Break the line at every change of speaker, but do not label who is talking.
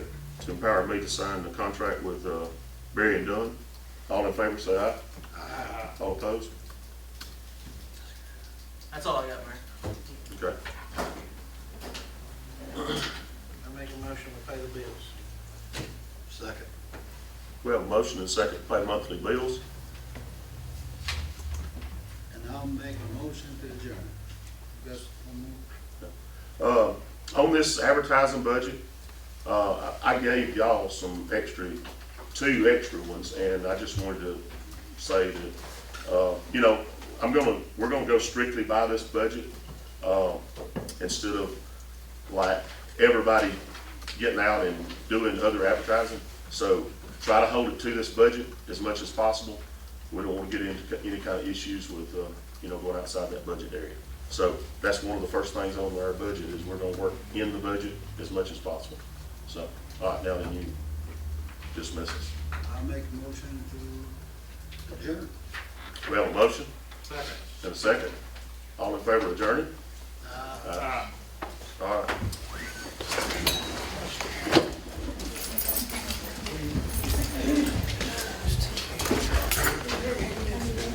empower me to sign the contract with uh, Berry and Dunn. All in favor, say aye. Aye. All opposed?
That's all I got, Mayor.
Okay.
I make a motion to pay the bills.
Second.
We have a motion and second to pay monthly bills.
And I'll make a motion to adjourn. Just one more.
Uh, On this advertising budget, uh, I I gave y'all some extra, two extra ones, and I just wanted to say that, uh, you know, I'm gonna, we're gonna go strictly by this budget, uh, instead of like everybody getting out and doing other advertising. So try to hold it to this budget as much as possible. We don't want to get into any kind of issues with, uh, you know, going outside that budget area. So that's one of the first things on our budget is we're gonna work in the budget as much as possible. So, all right, now then you dismiss us.
I'll make a motion to adjourn.
We have a motion? Second. And a second. All in favor of adjourning? Aye.